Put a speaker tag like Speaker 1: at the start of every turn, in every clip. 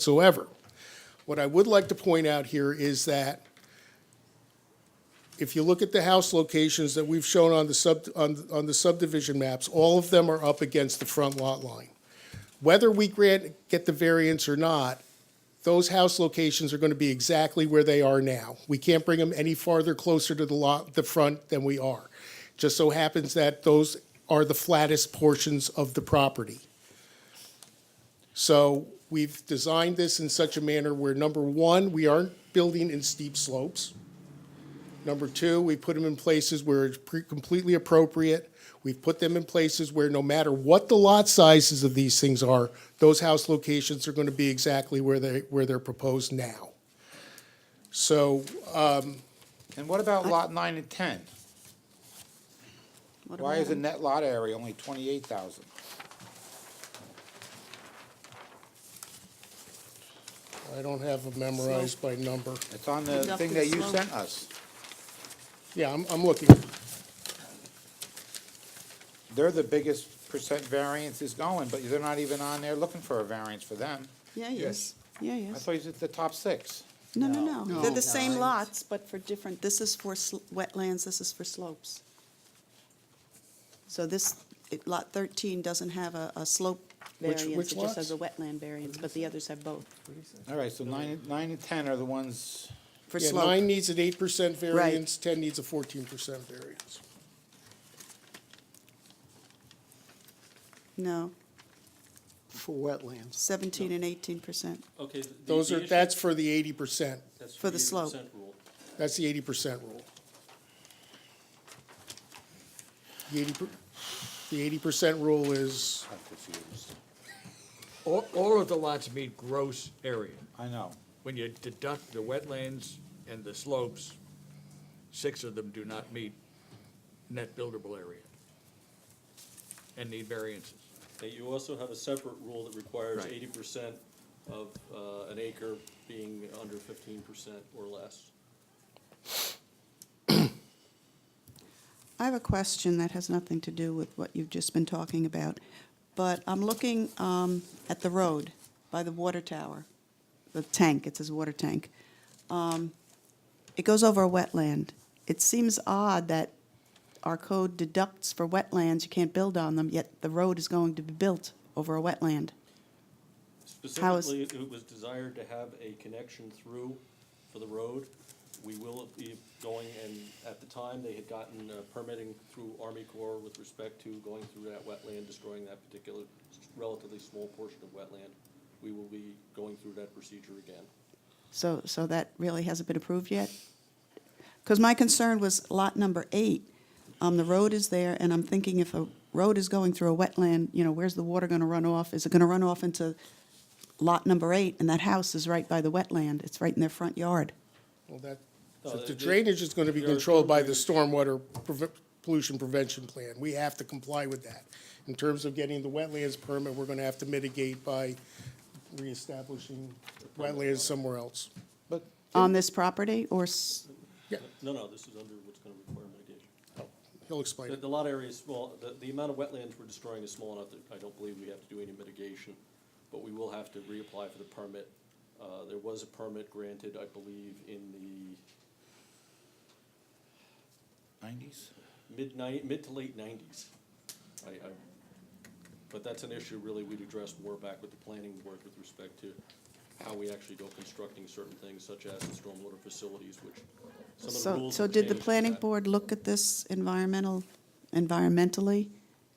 Speaker 1: whatsoever. What I would like to point out here is that if you look at the house locations that we've shown on the sub, on, on the subdivision maps, all of them are up against the front lot line. Whether we grant, get the variance or not, those house locations are going to be exactly where they are now. We can't bring them any farther closer to the lot, the front than we are. Just so happens that those are the flattest portions of the property. So we've designed this in such a manner where, number one, we aren't building in steep slopes. Number two, we put them in places where it's pre- completely appropriate. We've put them in places where no matter what the lot sizes of these things are, those house locations are going to be exactly where they, where they're proposed now. So
Speaker 2: And what about lot nine and ten? Why is the net lot area only twenty-eight thousand?
Speaker 1: I don't have them memorized by number.
Speaker 2: It's on the
Speaker 3: It's up
Speaker 2: thing
Speaker 3: to
Speaker 2: that
Speaker 3: the
Speaker 2: you
Speaker 3: slope.
Speaker 2: sent us.
Speaker 1: Yeah, I'm, I'm looking.
Speaker 2: They're the biggest percent variance is going, but they're not even on there looking for a variance for them.
Speaker 3: Yeah, yes, yeah,
Speaker 2: I
Speaker 3: yes.
Speaker 2: thought you said the top six.
Speaker 3: No, no, no, they're the same lots, but for different, this is for sl- wetlands, this is for slopes. So this, it- Lot 13 doesn't have a, a slope
Speaker 1: Which-
Speaker 3: variance,
Speaker 1: which
Speaker 3: it just has a
Speaker 1: lots?
Speaker 3: wetland variance, but the others have both,
Speaker 2: All right, so nine, and- nine and ten are the ones,
Speaker 3: for
Speaker 1: Yeah,
Speaker 3: slope.
Speaker 1: nine needs an eight percent variance, ten needs a fourteen percent variance.
Speaker 3: No,
Speaker 4: for wetlands.
Speaker 3: 17 and 18 percent.
Speaker 5: Okay. th- the-
Speaker 1: Those
Speaker 5: the
Speaker 1: are,
Speaker 5: issue-
Speaker 1: that's for the eighty percent.
Speaker 5: that's
Speaker 3: for the slope.
Speaker 5: 80% rule.
Speaker 1: That's the eighty percent rule. The eighty, the eighty percent rule is,
Speaker 2: I'm confused.
Speaker 6: All, all of the lots meet gross area.
Speaker 2: I know.
Speaker 6: When you deduct the wetlands and the slopes, six of them do not meet net buildable area and need variances.
Speaker 5: Okay, you also have a separate rule that requires
Speaker 6: Right.
Speaker 5: eighty percent of, uh, an acre being under fifteen percent or less.
Speaker 3: I have a question that has nothing to do with what you've just been talking about, but I'm looking um, at the road by the water tower, the tank, it says water tank. Um, It goes over a wetland. It seems odd that our code deducts for wetlands, you can't build on them, yet the road is going to be built over a wetland. How is-
Speaker 5: Specifically, it was desired to have a connection through for the road. We will be going, and at the time, they had gotten uh, permitting through Army Corps with respect to going through that wetland, destroying that particular relatively small portion of wetland. We will be going through that procedure again.
Speaker 3: So, so that really hasn't been approved yet? Because my concern was lot number eight, um, the road is there, and I'm thinking if a road is going through a wetland, you know, where's the water gonna run off? Is it gonna run off into lot number eight, and that house is right by the wetland, it's right in their front yard?
Speaker 1: well, that,
Speaker 5: No,
Speaker 1: the
Speaker 5: the-
Speaker 1: drainage is gonna be
Speaker 5: there are
Speaker 1: controlled by the
Speaker 5: storm
Speaker 1: stormwater preve- pollution prevention plan. We have to comply with that. In terms of getting the wetlands permit, we're gonna have to mitigate by reestablishing wetlands somewhere else.
Speaker 2: But
Speaker 3: On this property, or, s-
Speaker 5: No, no, this is under what's gonna require mitigation.
Speaker 1: He'll
Speaker 5: The,
Speaker 1: explain.
Speaker 5: the lot area is small, the, the amount of wetlands we're destroying is small enough that I don't believe we have to do any mitigation, but we will have to reapply for the permit. Uh, there was a permit granted, I believe, in the
Speaker 2: nineties?
Speaker 5: mid ni- mid to late nineties. I, I, but that's an issue really we'd address more back with the planning board with respect to how we actually go constructing certain things such as the stormwater facilities, which some of the
Speaker 3: so,
Speaker 5: rules.
Speaker 3: so
Speaker 5: have
Speaker 3: did the
Speaker 5: changed for
Speaker 3: planning
Speaker 5: that.
Speaker 3: board look at this environmental, environmentally,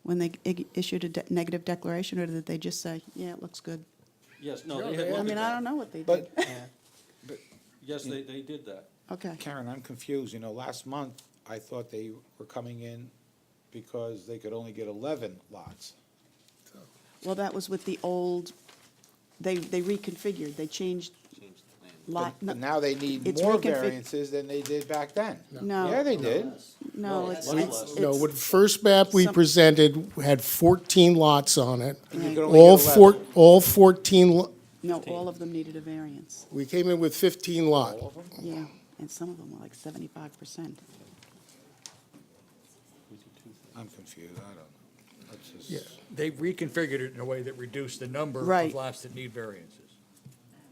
Speaker 3: when they i- issued a de- negative declaration, or did they just say, yeah, it looks good?
Speaker 5: Yes, no,
Speaker 1: Yeah,
Speaker 5: they
Speaker 1: they
Speaker 5: had
Speaker 1: had-
Speaker 3: I
Speaker 5: looked
Speaker 3: mean,
Speaker 5: at
Speaker 3: I
Speaker 5: that.
Speaker 3: don't know what they did,
Speaker 2: But
Speaker 5: Yes, they, they did that.
Speaker 3: okay.
Speaker 2: Karen, I'm confused. You know, last month, I thought they were coming in because they could only get eleven lots.
Speaker 3: Well, that was with the old, they, they reconfigured, they changed lot,
Speaker 2: But now they need
Speaker 3: it's
Speaker 2: more
Speaker 3: reconfig-
Speaker 2: variances than they did back then.
Speaker 3: No.
Speaker 2: Yeah, they did.
Speaker 3: no, it's,
Speaker 5: Lot
Speaker 3: it's,
Speaker 5: less.
Speaker 1: No,
Speaker 3: it's-
Speaker 1: what first map we
Speaker 3: Some-
Speaker 1: presented had fourteen lots on it.
Speaker 2: And you could only
Speaker 1: All
Speaker 2: get
Speaker 1: four,
Speaker 2: 11.
Speaker 1: all fourteen, lo-
Speaker 3: no, all of them needed a variance,
Speaker 1: we came in with fifteen lot.
Speaker 3: yeah, and some of them were like seventy-five percent.
Speaker 2: I'm confused, I don't know. Let's just-
Speaker 1: Yeah.
Speaker 6: They reconfigured it in a way that reduced the number
Speaker 3: Right.
Speaker 6: of lots that need variances.